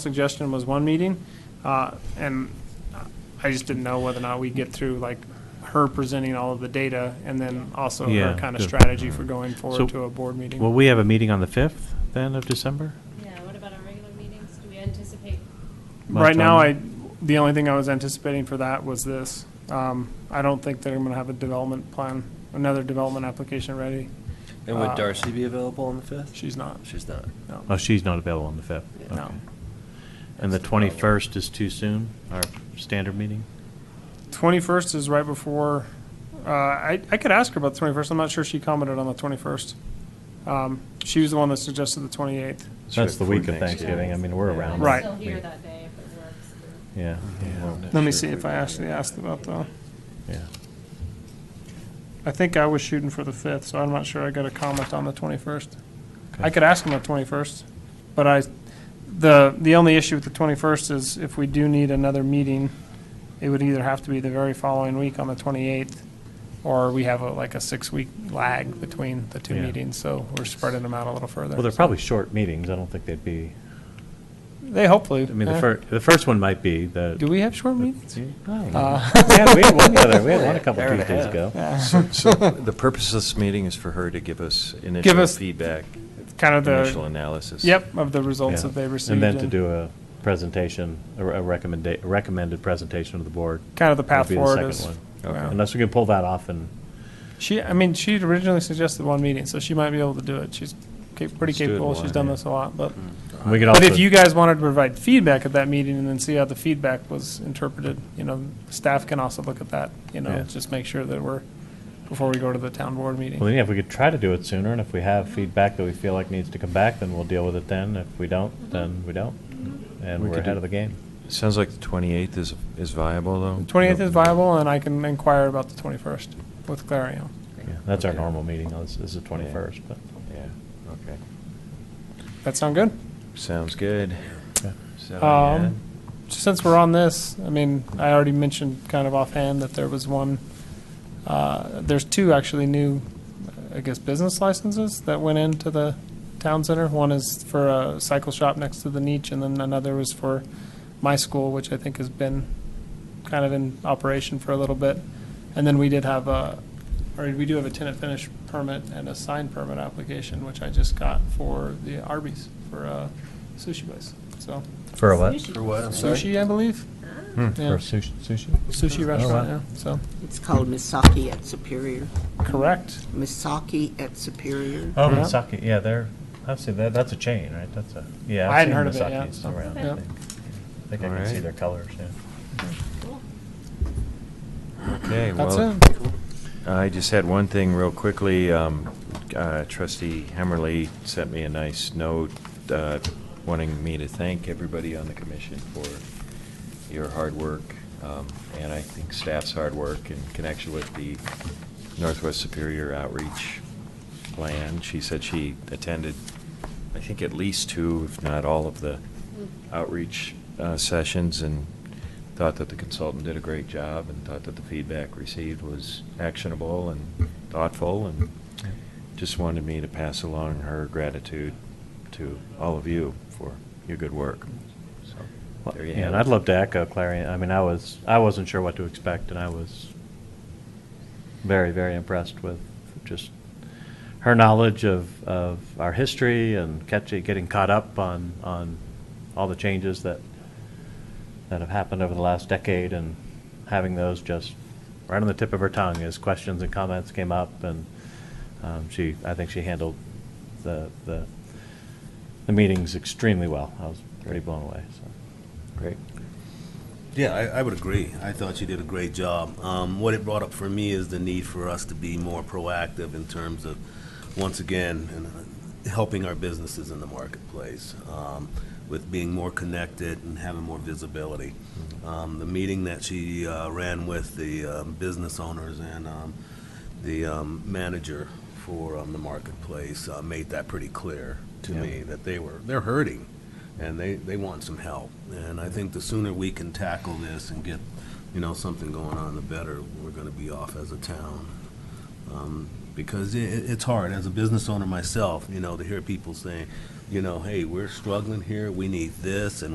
suggestion was one meeting, uh, and I just didn't know whether or not we get through, like, her presenting all of the data, and then also her Yeah, kind of good. strategy for going So- forward to a board meeting. Well, we have a meeting on the 5th then of December? Yeah, what about our regular meetings? Do we anticipate? Much Right now, on I, the only thing I was anticipating for that was this. Um, I don't think they're gonna have a development plan, another development application ready. And Uh, would Darcy be available on the 5th? She's not, She's not. no. Oh, she's not available on the 5th? Yeah. No. Okay. And the That's the problem. 21st is too soon, our standard meeting? Twenty-first is right before, uh, I, I could ask her about the twenty-first, I'm not sure she commented on the twenty-first. Um, she was the one that suggested the twenty-eighth. That's the week of Thanksgiving, I mean, we're around. I'm Right. still here We- that day if it works. Yeah. Let me see if I actually asked about the, Yeah. I think I was shooting for the fifth, so I'm not sure I got a comment on the twenty-first. I Okay. could ask him the twenty-first, but I, the, the only issue with the twenty-first is if we do need another meeting, it would either have to be the very following week on the twenty-eighth, or we have a- like a six-week lag between the two Yeah. meetings, so we're spreading them out a little further. Well, they're probably short meetings, I don't think they'd be, They hopefully. I mean, the eh. first, the first one might be the. Do we have short meetings? Uh, Yeah, we had one the other, we had one a couple Hour and a Tuesdays half. ago. Yeah. So the purpose of this meeting is for her to give us Give initial us feedback, Kind of initial the, analysis. yep, of the results Yeah. that they received. And then to do a presentation, a a recommenda, a recommended presentation to the board. Kind of the path would be forward second is- one. yeah. Unless we can pull that off and She, I mean, she originally suggested one meeting, so she might be able to do it. She's ca- pretty Let's do it in Hmm. capable. one, She's done yeah. this a lot, but. we could also. But if you guys wanted to provide feedback at that meeting and then see how the feedback was interpreted, you know, staff can also look at that, you know, Yeah. just make sure that we're, before we go to the town board Well, meeting. then, yeah, if we could try to do it sooner, and if we have feedback that we feel like needs to come back, then we'll deal with it then. If we don't, then we don't. And We we're could ahead do- of the game. Sounds like the 28th is, is viable, though? Twenty-eighth is viable, and I can inquire about the twenty-first with Clario. Yeah, That's our Okay. normal meeting, Oh, this is the 21st, but. Yeah, okay. That sound good? Sounds good. Yeah. So, yeah. Um, Since we're on this, I mean, I already mentioned kind of offhand that there was one, uh, there's two actually new, I guess, business licenses that went into the town center. One is for a cycle shop next to the niche, and then another was for my school, which I think has been kind of in operation for a little bit. And then we did have a, or we do have a tenant finish permit and a sign permit application, which I just got for the Arby's, for a sushi place, so. For a what? For what? I'm sorry? Hmm. Sushi, I believe. For Yeah. a sushi, sushi? Oh, Sushi restaurant, yeah, so, It's called Misaki at Superior. correct. Misaki at Superior. Oh, Yeah. Misaki, yeah, they're, I've seen that, that's a chain, right? That's a, yeah. I I've hadn't heard of it, seen yeah, Misaki's so- around, I yeah. think. I think I All can see right. their colors, yeah. Ah, Okay, That's well, it. I just had one thing real quickly. Um, uh, Trustee Hemmerly sent me a nice note uh, wanting me to thank everybody on the commission for your hard work, um, and I think staff's hard work in connection with the Northwest Superior Outreach Plan. She said she attended, I think, at least two, if not all, of the outreach uh, sessions and thought that the consultant did a great job and thought that the feedback received was actionable and thoughtful and just wanted me to pass along her gratitude to all of you for your good work. So, Well, there you yeah, have And it. I'd love to echo Clarion. I mean, I was, I wasn't sure what to expect, and I was very, very impressed with just her knowledge of, of our history and catching, getting caught up on, on all the changes that, that have happened over the last decade, and having those just right on the tip of her tongue as questions and comments came up, and um, she, I think she handled the, the, the meetings extremely well. I was pretty blown away, so. Great. Yeah, I, I would agree. I thought you did a great job. Um, what it brought up for me is the need for us to be more proactive in terms of, once again, and, uh, helping our businesses in the marketplace um, with being more connected and having more visibility. Mm-hmm. Um, the meeting that she uh, ran with the um, business owners and um, the um, manager for um, the marketplace uh, made that pretty clear to Yeah. me that they were they're hurting and they, they want some help. And I think the sooner we can tackle this and get, you know, something going on, the better we're gonna be off as a town. Um, Because i i- it's hard, as a business owner myself, you know, to hear people saying, you know, hey, we're struggling here, we need this, and